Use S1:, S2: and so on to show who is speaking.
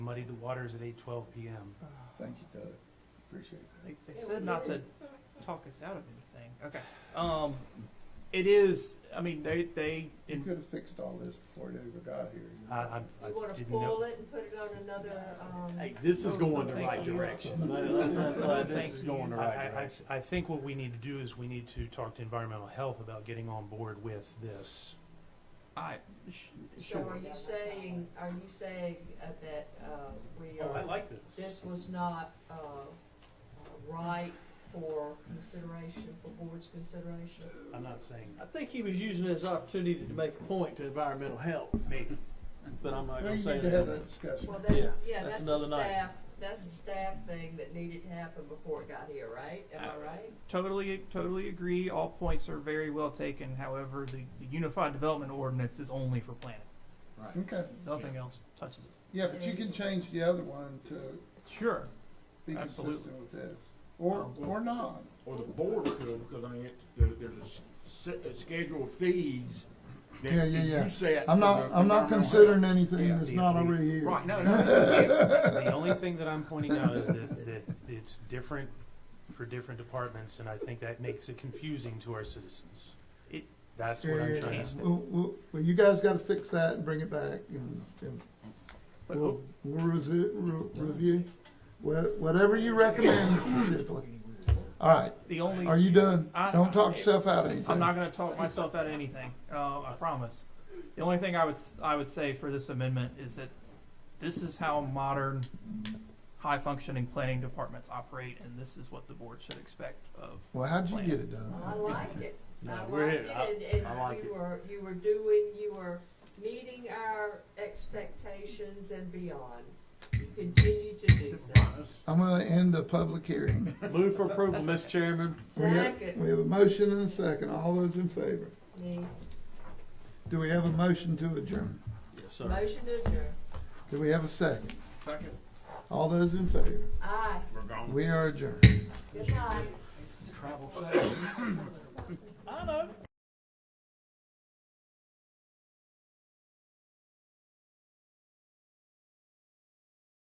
S1: muddy the waters at eight twelve PM.
S2: Thank you, Doug. Appreciate that.
S3: They, they said not to talk us out of anything. Okay. Um, it is. I mean, they they.
S2: You
S3: In,
S2: could have fixed all this before it ever got here. you know?
S1: I, I, I
S4: You wanna
S1: didn't
S4: pull
S1: know.
S4: it and put it on another, um,
S5: Hey, this is going the
S3: Thank
S5: right
S3: you.
S5: direction. This is
S3: Thank
S5: going the
S1: I,
S5: right
S1: I, I
S5: direction.
S1: th- I think what we need to do is we need to talk to environmental health about getting on board with this.
S3: I sh-
S4: so
S3: sure.
S4: are you saying, are you saying uh, that, uh, we
S1: Oh, I
S4: are,
S1: like this.
S4: this was not, uh, uh, right for consideration, for board's consideration?
S1: I'm not saying
S5: I think he was using this opportunity to make a point to environmental health,
S1: maybe.
S5: but I'm not
S2: Well,
S5: gonna
S2: you
S5: say
S2: need to have that
S5: that.
S2: discussion.
S4: Well,
S5: Yeah,
S4: that, yeah,
S5: that's
S4: that's the
S5: another night.
S4: staff, that's the staff thing that needed to happen before it got here, right? Am I
S3: Uh,
S4: right?
S3: Totally, totally agree. All points are very well taken. However, the, the Unified Development Ordinance is only for planning.
S2: Okay,
S3: Nothing else touches it.
S2: yeah, but you can change the other one to
S3: Sure.
S2: be
S3: Absolutely.
S2: consistent with this, or,
S3: Um,
S2: or not.
S6: Or the board could, because I mean, it, there, there's a s- s- a schedule of fees that
S2: Yeah, yeah,
S6: that
S2: yeah.
S6: you set.
S2: I'm
S6: for
S2: not,
S6: the
S2: I'm not considering
S6: environmental
S2: anything
S6: Yeah,
S2: that's
S1: the-
S2: not
S1: the-
S2: already here.
S6: health. Right, no, no, no,
S1: The only thing that I'm pointing out is that, that it's different for different departments, and I think that makes it confusing to our citizens.
S3: It-
S1: That's what I'm
S2: Yeah,
S1: trying to
S2: yeah.
S1: say.
S2: Well, well, well, you guys gotta fix that and bring it back and, and
S3: But
S2: we'll, we'll resi- re- review, Wha- whatever you recommend, Mr. Shipley. All right,
S3: the only
S2: are you done?
S3: I-
S2: Don't talk
S3: I-
S2: yourself out of anything.
S3: I'm not going to talk myself out of anything. Uh, I promise. The only thing I would s- I would say for this amendment is that this is how modern, high functioning planning departments operate, and this is what the board should expect of.
S2: Well, how'd you get it done?
S4: I like it. I
S5: we're
S4: like it,
S5: here. I-
S4: and, and
S5: I like
S4: you were, you were doing, you were meeting our expectations and beyond. You continue to do so.
S2: I'm gonna end the public hearing.
S5: Move for approval, Mr. Chairman.
S2: We have-
S4: Second,
S2: We have a motion and a second, all those in favor.
S4: me,
S2: Do we have a motion to adjourn?
S5: Yes,
S4: motion to adjourn.
S2: Do we have a second?
S3: Second.
S2: All those in favor,
S4: Aye,
S2: we are adjourned.
S4: good night.
S6: no. Travel fast.